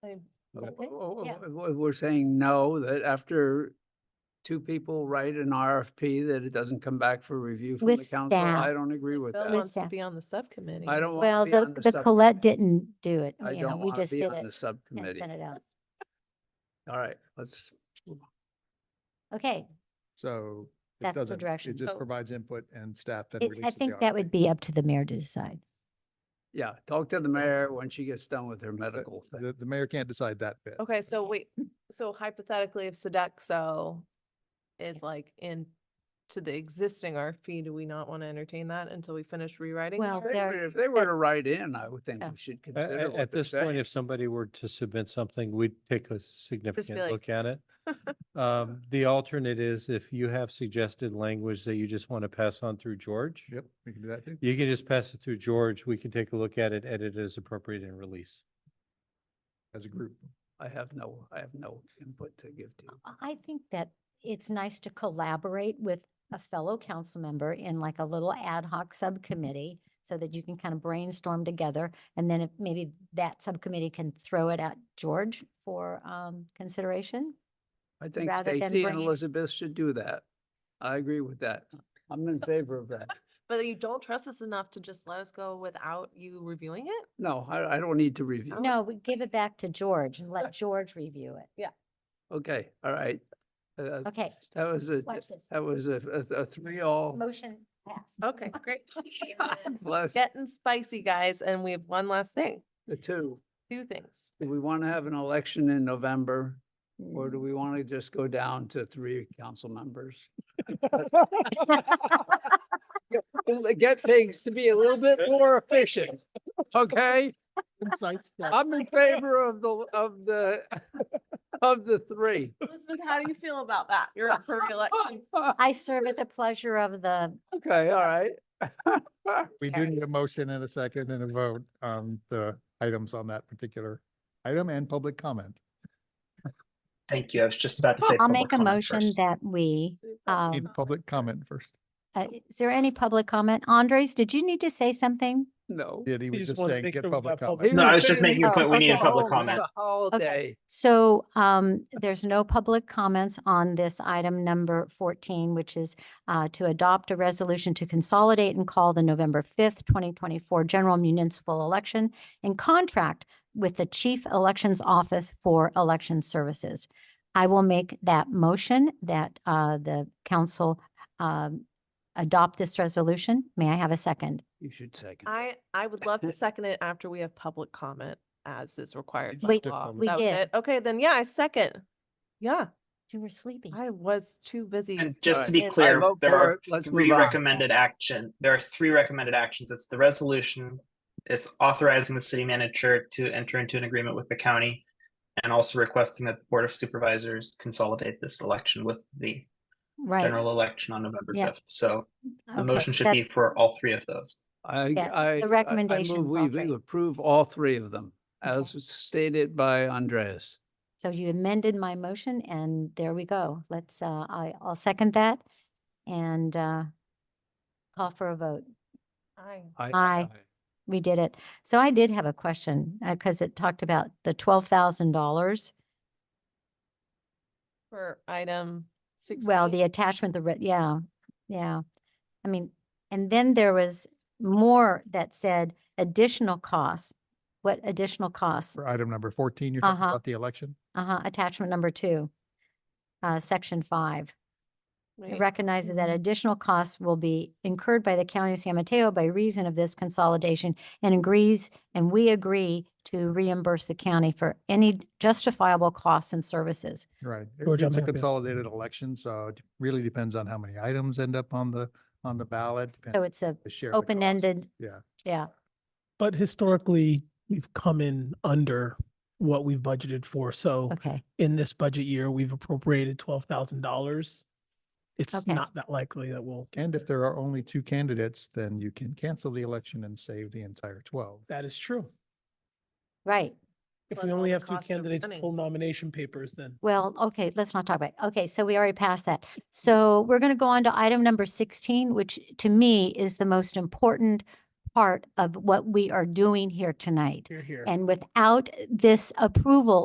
I- No. Okay, Oh, yeah. w- w- We're saying no, that after two people write an RFP, that it doesn't come back for review from the With council. staff. I don't agree with With Bill that. wants to staff. be on the subcommittee. I don't Well, want to be on the, the the Colette subcommittee. didn't do it. I You know, don't we want to just be did on the it and subcommittee. sent it out. All right, let's, Okay. So it That's the doesn't, direction. it just So- provides input and staff then It- releases the I RFP. think that would be up to the mayor to decide. yeah, talk to the Exactly. mayor when she gets done with her But medical thing. The, the mayor can't decide that bit. Okay, so Okay. wait, so hypothetically, if Sodexo is like in to the existing RFP, do we not want to entertain that until we finish rewriting? the Well, If they there- Oh. RFP? were- If they were to write in, I would think Yeah. we should A- consider a- what At they're this point, saying. if somebody were to submit something, we'd take a significant like- look at it. Um, The alternate is if you have suggested language that you just want to pass on through George, Yep, we can do that too. you can just pass it through George. We can take a look at it, edit it as appropriate and release. As a group. I have no, I have no input to give to you. I think that it's nice to collaborate with a fellow council member in like a little ad hoc subcommittee so that you can kind of brainstorm together. And then if maybe that subcommittee can throw it at George for um, consideration. I think rather than Stacy and bringing- Elizabeth should do that. I agree with that. I'm in favor of that. But you don't trust us enough to just let us go without you reviewing it? No, I, I don't need to review. Oh. No, we give it back to George and let George review it. Okay, all right. Uh, Okay, That was a, Oh. watch this. that was a, a- a three all. Motion passed. Okay, great. Plus Getting spicy, guys, and we have one last thing, the two. two things. Do we want to have an election in November or do we want to just go down to three council members? Get things to be a little bit more efficient, okay? I'm in favor of the, of the, of the three. Elizabeth, how do you feel about that? You're up for reelection. I serve at the pleasure of the, Okay, all right. We do Alright. need a motion and a second and a vote on the items on that particular item and public comment. Thank you. I was just about to say. I'll public make a comment motion first. that we, um, Need public comment first. uh, is there any public comment? Andres, did you need to say something? No. Did he was just just wanted to saying, make get sure we public got public comment. No, I was He just making a Oh, point. We need a okay. public Oh, comment. It's a holiday. So um, there's no public comments on this item number 14, which is uh, to adopt a resolution to consolidate and call the November 5th, 2024 general municipal election and contract with the Chief Elections Office for Election Services. I will make that motion that uh, the council um, adopt this resolution. May I have a second? You should second. it. I, I would love to second it after we have public comment as is required did by public law. comment. That We was did. it. Okay, then yeah, I second. Yeah, You were sleepy. I was too busy. And Alright. just to be And I clear, vote there for are it. Let's move three on. recommended action. There are three recommended actions. It's the resolution. It's authorizing the city manager to enter into an agreement with the county. And also requesting that the Board of Supervisors consolidate this election with the Right. general election on November Yeah. fifth. So the Okay, motion should be that's- for all three of those. I, Yeah, the I. I- I move recommendations, all we- three. We approve all three of them, Okay. as stated by Andreas. So you amended my motion and there we go. Let's, uh, I, I'll second that and, uh, call for a vote. Aye. I- Aye. We did it. So I did have a question, uh, cause it talked about the twelve thousand dollars. For item sixteen. Well, the attachment, the, re- yeah, yeah. I mean, and then there was more that said additional costs. What additional costs? For item number fourteen, you're talking Uh-huh. about the election? Uh-huh, attachment number two, uh, section five. It Wait. recognizes that Mm-hmm. Mhm. additional costs will be incurred by the county of San Mateo by reason of this consolidation and agrees, and we agree to reimburse the county for any justifiable costs and services. Right. It- George, I'm It's a happy. consolidated election, so it really depends on how many items end up on the, on the ballot. depends So on it's a the share of the cost. open-ended, Yeah. yeah, But historically, we've come in under what we've budgeted for. So okay, in this budget year, we've appropriated twelve thousand dollars. It's Okay. not that likely that we'll, And if there are only two candidates, then you can cancel the election and save the entire twelve. that is true. right. If Plus we all only the have two cost of candidates running. pull nomination papers, then Well, okay, let's not talk about, it. okay, so we already passed that. So we're going to go on to item number 16, which to me is the most important part of what we are doing here tonight. Here, here. And without this approval